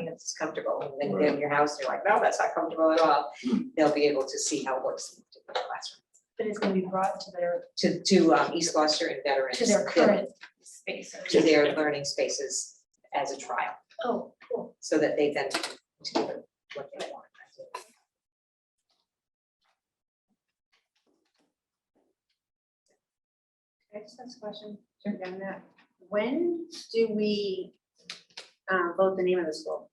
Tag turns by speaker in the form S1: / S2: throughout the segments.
S1: it's comfortable, and then they're in your house, they're like, no, that's not comfortable at all,
S2: Hmm.
S1: they'll be able to see how it works in the classroom.
S3: But it's gonna be brought to their,
S1: To, to, um, East Gloucester and veterans.
S3: to their current space.
S1: To their learning spaces as a trial,
S3: Oh, cool.
S1: so that they then do what they want.
S4: I just have a question, jump down that. When do we uh, vote the name of the school?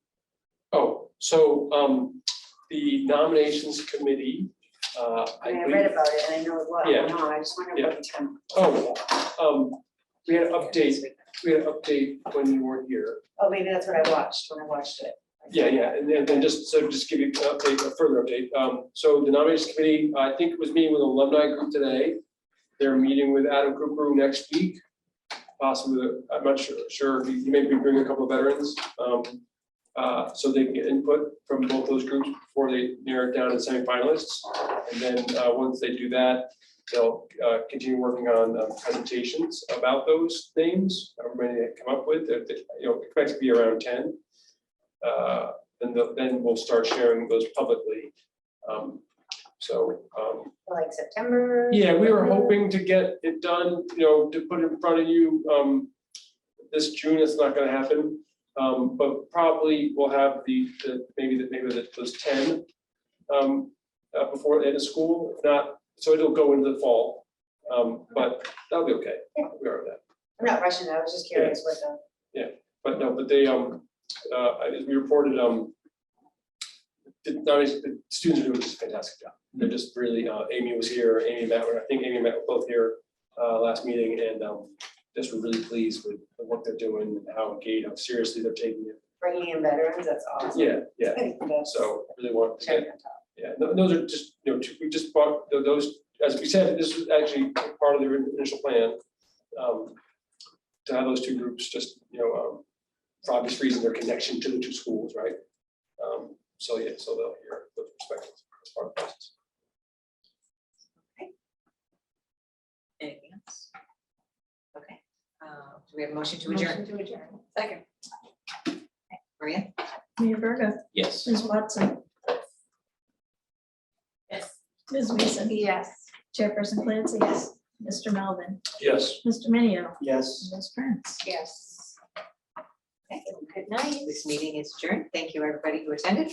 S2: Oh, so um the nominations committee, uh I
S4: I mean, I
S2: believe-
S4: read about it and I know it was,
S2: Yeah.
S4: no, I just wonder what it's from.
S2: Oh, um we had an update, we had an update when you weren't here.
S4: Oh, maybe that's what I watched when I watched it.
S2: Yeah, yeah, and then then just so just give you an update, a further update. Um so the nominations committee, I think was meeting with alumni group today. They're meeting with Adam Kukru next week, possibly, the- I'm not sure, sure, he he may be bringing a couple of veterans. Um uh so they can get input from both those groups before they narrow it down to semifinalists. And then uh once they do that, they'll uh continue working on uh, presentations about those names, however many they come up with, They're- they- you know, expect to be around ten. Uh then the- then we'll start sharing those publicly. Um so um
S4: Like September?
S2: yeah, we were hoping to get it done, you know, to put in front of you, um, this June, it's not gonna happen. Um, but probably we'll have the, the, maybe the, maybe the, those ten, um, uh, before the end of school, if not, so it'll go into the fall. Um, but that'll be okay, we are that,
S4: I'm not rushing, I was just curious what the,
S2: but no, but they, um, uh, as we reported, um, the, the students are doing just a fantastic job. They're just really, uh, Amy was here, Amy and Matt, were- I think Amy and Matt were both here, uh, last meeting and, um, just were really pleased with the work they're doing, and how engaged, how seriously they're taking it.
S4: bringing in veterans, that's awesome.
S2: Yeah, yeah,
S4: That's
S2: so really want to
S4: cherry
S2: get,
S4: on top.
S2: yeah, tho- those are just, you know, two- we just bought tho- those, as we said, this was actually part of the initial plan. um, To have those two groups just, you know, um, for obvious reason, their connection to the two schools, right? Um, So, yeah, so they'll hear those perspectives as part of the process.
S1: Anything else? Okay, uh, do we have a motion to adjourn?
S3: Motion to adjourn.
S1: Second. Maria?
S5: Mayor Verda,
S6: Yes.
S5: Ms. Watson,
S3: Yes.
S5: Ms. Mason,
S3: Yes.
S5: Chairperson Clancy, yes, Mr. Melvin,
S2: Yes.
S5: Mr. Minio,
S6: Yes.
S5: Ms. Prince.
S3: Yes.
S1: Good night. This meeting is adjourned. Thank you, everybody who attended.